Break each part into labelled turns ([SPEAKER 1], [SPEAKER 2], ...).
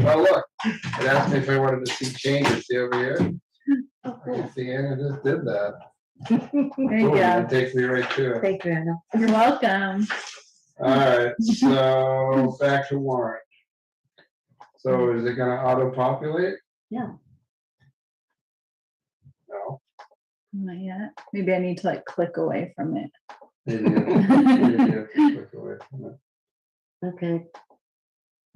[SPEAKER 1] a Oh, look and asked me if I wanted to see changes, see over here. I didn't see any, I just did that.
[SPEAKER 2] There you
[SPEAKER 1] Boom,
[SPEAKER 2] go.
[SPEAKER 1] It takes me right to it.
[SPEAKER 2] Thank you, Anna. You're welcome.
[SPEAKER 1] All right, so back to warrant. So is it gonna auto-populate?
[SPEAKER 2] Yeah.
[SPEAKER 1] No.
[SPEAKER 2] Not yet. Maybe I need to like click away from it.
[SPEAKER 1] Maybe you- maybe you click away from it.
[SPEAKER 3] Okay.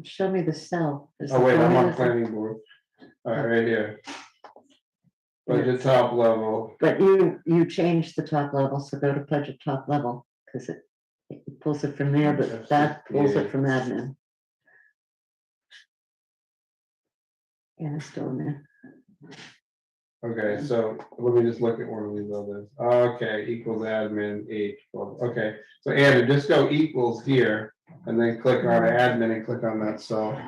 [SPEAKER 3] Show me the cell. Is
[SPEAKER 1] Oh, wait,
[SPEAKER 3] the
[SPEAKER 1] I'm on
[SPEAKER 3] cell-
[SPEAKER 1] planning board. All right, right here. Budget top level.
[SPEAKER 3] But you, you changed the top level, so go to budget top level, because it it pulls it from there, but that pulls
[SPEAKER 1] Yeah.
[SPEAKER 3] it from admin. Yeah, it's still in there.
[SPEAKER 1] Okay, so let me just look at one of these others. Okay, equals admin H. well, Okay, so Andrew, just go equals here and then click on admin and click on that cell.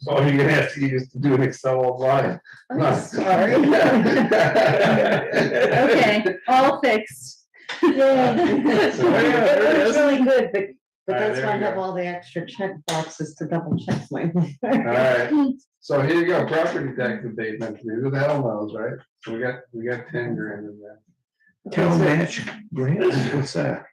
[SPEAKER 1] So you're gonna have to use to do an Excel line.
[SPEAKER 2] I'm sorry. Okay, all fixed.
[SPEAKER 1] So there it is.
[SPEAKER 3] It's really good, but, but
[SPEAKER 1] All right,
[SPEAKER 3] that's
[SPEAKER 1] there
[SPEAKER 3] why I
[SPEAKER 1] we
[SPEAKER 3] have
[SPEAKER 1] go.
[SPEAKER 3] all the extra check boxes to double check my.
[SPEAKER 1] Alright, so here you go, property tax abatement, who the hell knows, right? So we got, we got ten grand in there.
[SPEAKER 4] Town match grants, what's that?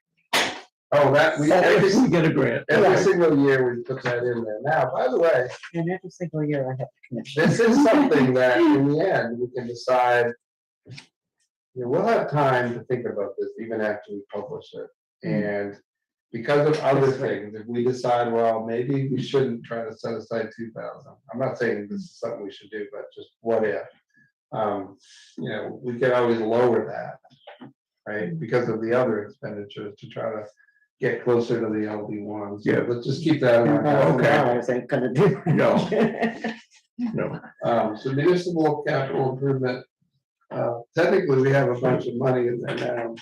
[SPEAKER 1] Oh, that, we, every
[SPEAKER 4] If we get a grant.
[SPEAKER 1] every single year we put that in there. Now, by the way,
[SPEAKER 3] And every single year I have to commission.
[SPEAKER 1] This is something that in the end, we can decide. You know, we'll have time to think about this even after we publish
[SPEAKER 4] Hmm.
[SPEAKER 1] it. And because of other things, if we decide, well, maybe we shouldn't try to set aside two thousand. I'm not saying this is something we should do, but just what if? Um, you know, we could always lower that. Right, because of the other expenditures to try to get closer to the LD ones.
[SPEAKER 4] Yeah.
[SPEAKER 1] Let's just keep that in
[SPEAKER 3] Ten thousand
[SPEAKER 1] mind.
[SPEAKER 4] Okay.
[SPEAKER 3] dollars ain't gonna do.
[SPEAKER 4] No.
[SPEAKER 3] it.
[SPEAKER 4] No,
[SPEAKER 1] Um, so municipal capital improvement, uh, technically, we have a bunch of money in there now.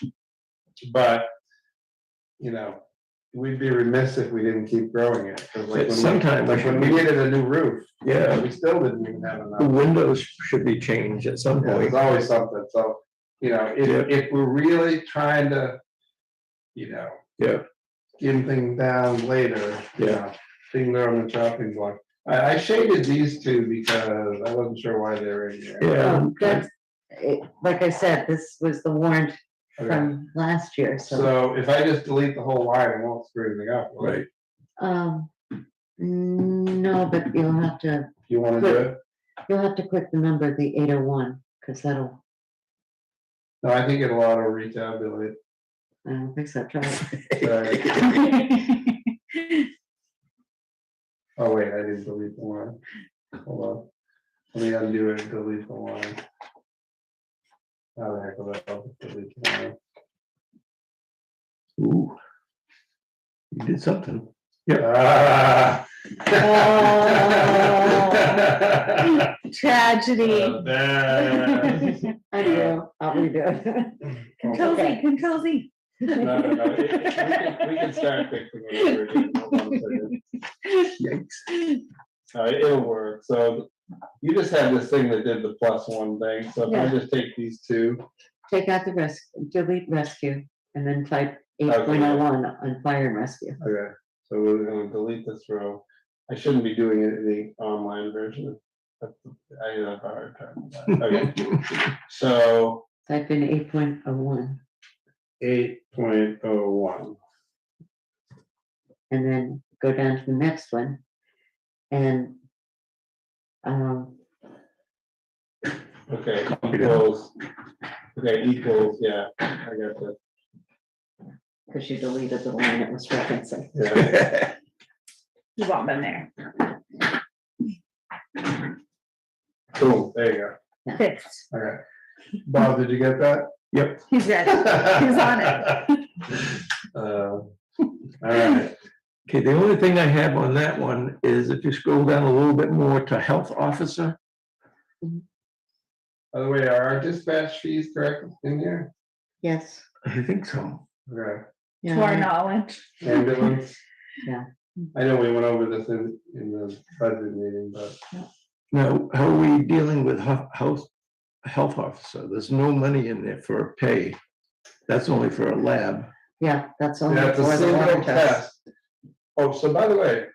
[SPEAKER 1] But, you know, we'd be remiss if we didn't keep growing it. 'cause like when
[SPEAKER 4] But
[SPEAKER 1] we-
[SPEAKER 4] sometime we
[SPEAKER 1] Like when we
[SPEAKER 4] should-
[SPEAKER 1] needed a new roof,
[SPEAKER 4] yeah,
[SPEAKER 1] we still didn't even have
[SPEAKER 4] the
[SPEAKER 1] enough.
[SPEAKER 4] windows should be changed at some
[SPEAKER 1] Yeah, There's
[SPEAKER 4] point.
[SPEAKER 1] always something, so, you know, if,
[SPEAKER 4] Oh, Yeah.
[SPEAKER 1] if we're really trying to, you know,
[SPEAKER 4] Yeah,
[SPEAKER 1] skin things down later. you
[SPEAKER 4] Yeah.
[SPEAKER 1] know, Things that are on the chopping block. I, I shaded these two because I wasn't sure why they were in here.
[SPEAKER 4] yeah.
[SPEAKER 3] Um, That's, it, like I said, this was the warrant
[SPEAKER 1] Okay.
[SPEAKER 3] from last year, so,
[SPEAKER 1] So if I just delete the whole line, it won't screw anything up. will it?
[SPEAKER 4] Right,
[SPEAKER 3] um, no, but you'll have to,
[SPEAKER 1] You wanna do it?
[SPEAKER 3] you'll have to click the number, the eight oh one, because that'll,
[SPEAKER 1] No, I think it'll auto retabulate.
[SPEAKER 3] I don't think so, try it.
[SPEAKER 1] Sorry. Oh, wait, I didn't delete the line. Hold on. Let me undo it and delete the line. How the heck will that help? Delete the line.
[SPEAKER 4] ooh. You did something.
[SPEAKER 1] Ah.
[SPEAKER 2] Oh.
[SPEAKER 1] Uh,
[SPEAKER 2] Tragedy.
[SPEAKER 1] there.
[SPEAKER 3] I do, I'll redo
[SPEAKER 2] Control Z, control Z.
[SPEAKER 1] No, no, no, it- it- We can we can start fixing it. Hold on a second.
[SPEAKER 4] Yikes.
[SPEAKER 1] No, it- it'll work, so you just have this thing that did the plus one thing, so if I
[SPEAKER 3] Yeah.
[SPEAKER 1] just take these two.
[SPEAKER 3] Take out the risk, delete rescue, and then type eight point oh one on fire and rescue.
[SPEAKER 1] Okay. So we're gonna delete this row, I shouldn't be doing it in the online version. That's- I have a hard time with that, okay, so
[SPEAKER 3] Type in eight point oh one,
[SPEAKER 1] eight point oh one.
[SPEAKER 3] and then go down to the next one, and, um,
[SPEAKER 1] Okay, equals, okay, equals, yeah, I got that,
[SPEAKER 3] because you deleted the line it was referencing.
[SPEAKER 1] yeah,
[SPEAKER 2] You've all been there.
[SPEAKER 1] cool, there you go,
[SPEAKER 2] Fixed.
[SPEAKER 1] all right. Bob, did you get that?
[SPEAKER 2] He's ready. He's on
[SPEAKER 1] it. Um, All right,
[SPEAKER 4] Okay, the only thing I have on that one is if you scroll down a little bit more to health officer,
[SPEAKER 1] by the way, are our dispatch fees correct in here?
[SPEAKER 3] Yes.
[SPEAKER 4] I think so.
[SPEAKER 1] Okay.
[SPEAKER 2] To our
[SPEAKER 3] Yeah,
[SPEAKER 2] knowledge.
[SPEAKER 1] Ambulance?
[SPEAKER 3] Yeah.
[SPEAKER 1] I know we went over this in, in the budget meeting, but
[SPEAKER 4] Now, how are we dealing with hu- health, health officer? There's no money in there for a pay. That's only for a lab.
[SPEAKER 3] yeah, that's only
[SPEAKER 1] that's a
[SPEAKER 3] for the
[SPEAKER 1] single
[SPEAKER 3] water test.
[SPEAKER 1] test. Oh, so by the way,